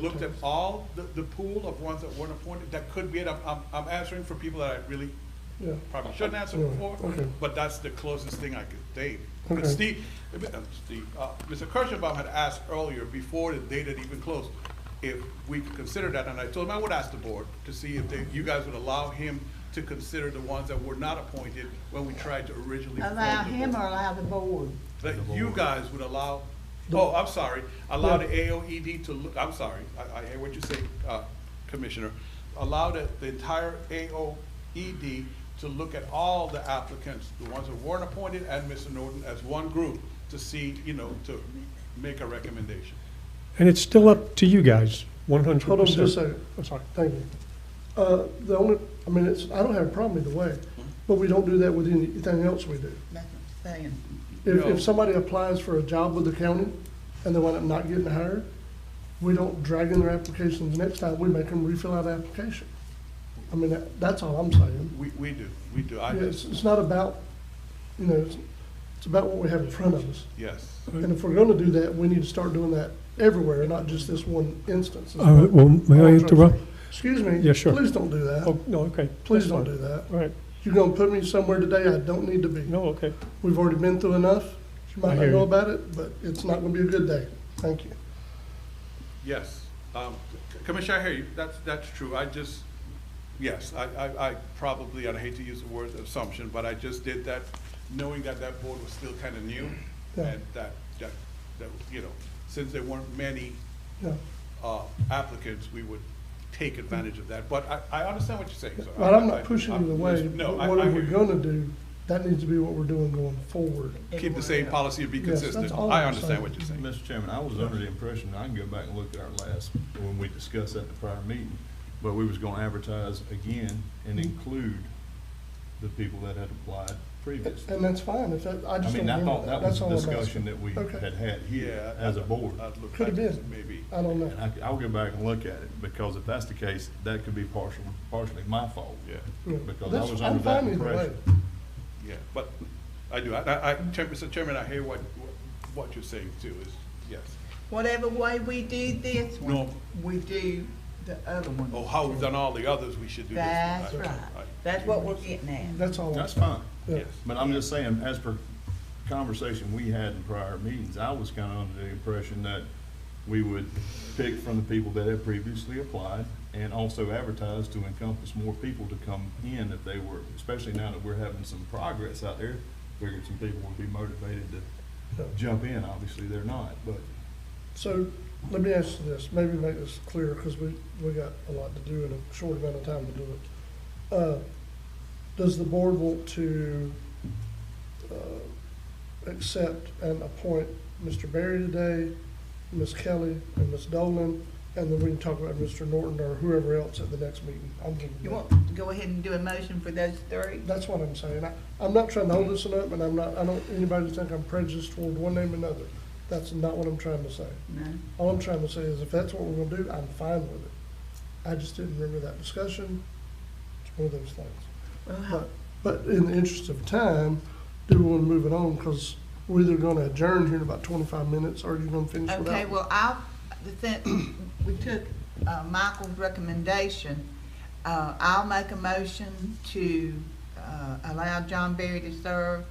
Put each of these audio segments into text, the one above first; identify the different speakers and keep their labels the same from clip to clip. Speaker 1: looked at all the, the pool of ones that weren't appointed, that could be it. I'm, I'm, I'm answering for people that I really
Speaker 2: Yeah,
Speaker 1: probably shouldn't answer
Speaker 2: Yeah,
Speaker 1: for,
Speaker 2: okay.
Speaker 1: but that's the closest thing I could date. But
Speaker 2: Okay.
Speaker 1: Steve, uh, Steve, uh, Mr. Kirschenbaum had asked earlier, before the date had even closed, if we could consider that, and I told him I would ask the board to see if they, you guys would allow him to consider the ones that were not appointed when we tried to originally. appoint
Speaker 3: Allow
Speaker 1: the
Speaker 3: him
Speaker 1: board.
Speaker 3: or allow the board?
Speaker 1: That you guys would allow, oh, I'm sorry, allow the AOED to look, I'm sorry, I, I hear what you say, uh, Commissioner. Allow the, the entire AOED to look at all the applicants, the ones that weren't appointed and Mr. Norton as one group to see, you know, to make a recommendation.
Speaker 4: And it's still up to you guys, one hundred percent.
Speaker 2: hold on just a second,
Speaker 4: I'm sorry.
Speaker 2: thank you. Uh, the only, I mean, it's, I don't have a problem either way, but we don't do that with anything else we do.
Speaker 3: That's what I'm saying.
Speaker 2: If,
Speaker 1: No.
Speaker 2: if somebody applies for a job with the county and they wind up not getting hired, we don't drag in their applications next time, we make them refill out the application. I mean, that, that's all I'm saying.
Speaker 1: We, we do, we do, I
Speaker 2: It's,
Speaker 1: just,
Speaker 2: it's not about, you know, it's, it's about what we have in front of us.
Speaker 1: yes.
Speaker 2: And if we're gonna do that, we need to start doing that everywhere, not just this one instance.
Speaker 4: All right, Oh, well, may I interrupt?
Speaker 2: Excuse me.
Speaker 4: Yeah, sure.
Speaker 2: Please don't do that.
Speaker 4: Oh, no, okay.
Speaker 2: Please
Speaker 4: That's
Speaker 2: don't
Speaker 4: fine.
Speaker 2: do that.
Speaker 4: All right,
Speaker 2: You're gonna put me somewhere today I don't need to be.
Speaker 4: no, okay.
Speaker 2: We've already been through enough. You
Speaker 4: I
Speaker 2: might not
Speaker 4: hear
Speaker 2: know
Speaker 4: you.
Speaker 2: about it, but it's not gonna be a good day. Thank you.
Speaker 1: Yes, um, C- Commissioner, I hear you, that's, that's true, I just, yes, I, I, I probably, and I hate to use the word assumption, but I just did that knowing that that board was still kind of new,
Speaker 2: Yeah.
Speaker 1: and that, that, that, you know, since there weren't many,
Speaker 2: Yeah.
Speaker 1: uh, applicants, we would take advantage of that, but I, I understand what you're saying, so.
Speaker 2: But I'm
Speaker 1: I-
Speaker 2: not pushing
Speaker 1: I'm
Speaker 2: either way.
Speaker 1: just- No,
Speaker 2: but
Speaker 1: I, I
Speaker 2: Whatever
Speaker 1: hear
Speaker 2: we're
Speaker 1: you.
Speaker 2: gonna do, that needs to be what we're doing going forward.
Speaker 1: Keep the same policy and be
Speaker 2: Yes, that's
Speaker 1: consistent,
Speaker 2: all
Speaker 1: I
Speaker 2: I'm
Speaker 1: understand
Speaker 2: saying.
Speaker 1: what you're saying.
Speaker 5: Mr. Chairman, I was under the impression, I can go back and look at our last, when we discussed that in the prior meeting, but we was gonna advertise again and
Speaker 2: Hmm.
Speaker 5: include the people that had applied previously.
Speaker 2: And that's fine, if that, I
Speaker 5: I
Speaker 2: just don't
Speaker 5: mean, I
Speaker 2: remember
Speaker 5: thought
Speaker 2: that.
Speaker 5: that
Speaker 2: Uh, That's
Speaker 5: was
Speaker 2: all
Speaker 5: a
Speaker 2: I'm asking.
Speaker 5: discussion that we
Speaker 2: Okay.
Speaker 5: had had
Speaker 1: Yeah.
Speaker 5: here as a board.
Speaker 1: I'd look
Speaker 2: Could've
Speaker 1: back,
Speaker 2: been. Uh,
Speaker 1: Maybe.
Speaker 2: I don't
Speaker 5: And
Speaker 2: know.
Speaker 5: I, I'll go back and look at it, because if that's the case, that could be partial, partially my fault.
Speaker 1: Yeah.
Speaker 2: Yeah.
Speaker 5: Because I
Speaker 2: That's-
Speaker 5: was
Speaker 2: I'm
Speaker 5: under that
Speaker 2: fine either way.
Speaker 5: impression.
Speaker 1: Yeah, but I do, I- I, I, Chair- Mr. Chairman, I hear what, what you're saying too, is, yes.
Speaker 3: Whatever way we do this one,
Speaker 1: No.
Speaker 3: we do the other one.
Speaker 1: Oh, how we've done all the others, we should do this.
Speaker 3: That's
Speaker 1: I-
Speaker 3: right.
Speaker 1: I-
Speaker 3: That's what we're getting at.
Speaker 2: That's all. I'm
Speaker 5: That's fine.
Speaker 2: Yeah.
Speaker 1: Yes.
Speaker 5: But I'm just saying, as per conversation we had in prior meetings, I was kind of under the impression that we would pick from the people that had previously applied and also advertise to encompass more people to come in if they were, especially now that we're having some progress out there. Figured some people would be motivated to jump in. Obviously, they're not, but
Speaker 2: So let me ask you this, maybe make this clear, because we, we got a lot to do in a short amount of time to do it. Uh, Does the board want to uh, accept and appoint Mr. Barry today, Ms. Kelly, and Ms. Dolan, and then we can talk about Mr. Norton or whoever else at the next meeting? I'm good with
Speaker 3: You
Speaker 2: that.
Speaker 3: want to go ahead and do a motion for those three?
Speaker 2: That's what I'm saying. I, I'm not trying to hold this one up, and I'm not, I don't, anybody to think I'm prejudiced toward one name or another. That's not what I'm trying to say.
Speaker 3: No?
Speaker 2: All I'm trying to say is if that's what we're gonna do, I'm fine with it. I just didn't remember that discussion. It's one of those things.
Speaker 3: Well, how-
Speaker 2: But, but in the interest of time, do we wanna move it on? Cause we're either gonna adjourn here in about twenty-five minutes or you're gonna finish without.
Speaker 3: Okay, well, I, the thing, we took uh, Michael's recommendation. Uh, I'll make a motion to uh, allow John Berry to serve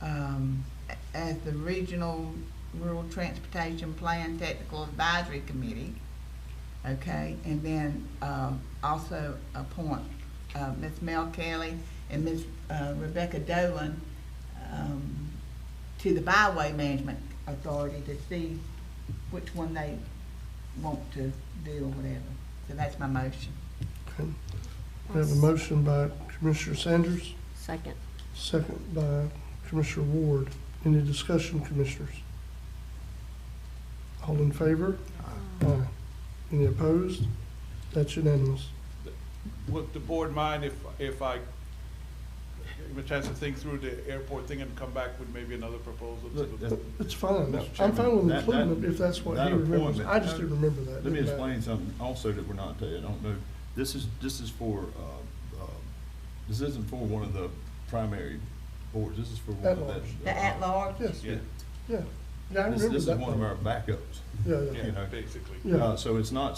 Speaker 3: um, a- as the Regional Rural Transportation Plan Technical Advisory Committee. Okay, and then um, also appoint uh, Ms. Mel Kelly and Ms. uh, Rebecca Dolan um, to the Byway Management Authority to see which one they want to do or whatever. So that's my motion.
Speaker 2: Okay. We have a motion by Commissioner Sanders,
Speaker 6: Second.
Speaker 2: second by Commissioner Ward. Any discussion, commissioners? All in favor? Aye. Any opposed? That's unanimous.
Speaker 1: Would the board mind if, if I give a chance to think through the airport thing and come back with maybe another proposal? to
Speaker 5: look,
Speaker 1: the-
Speaker 5: that's-
Speaker 2: It's fine.
Speaker 5: Mr.
Speaker 2: I'm fine with
Speaker 5: Chairman, that-
Speaker 2: including
Speaker 5: that-
Speaker 2: it if that's what
Speaker 5: that
Speaker 2: he remembers.
Speaker 5: appointment-
Speaker 2: I just didn't remember that.
Speaker 5: Let me
Speaker 2: Didn't matter.
Speaker 5: explain something also that we're not telling, I don't know, this is, this is for, uh, uh, this isn't for one of the primary boards, this is for one of
Speaker 2: At-large.
Speaker 5: the.
Speaker 3: The at-large?
Speaker 2: Yes,
Speaker 1: Yeah,
Speaker 2: yeah. Yeah, I
Speaker 5: This,
Speaker 2: remember
Speaker 5: this is
Speaker 2: that
Speaker 5: one of
Speaker 2: part.
Speaker 5: our backups,
Speaker 2: Yeah, yeah.
Speaker 1: yeah, basically.
Speaker 2: Yeah.
Speaker 5: uh, so it's not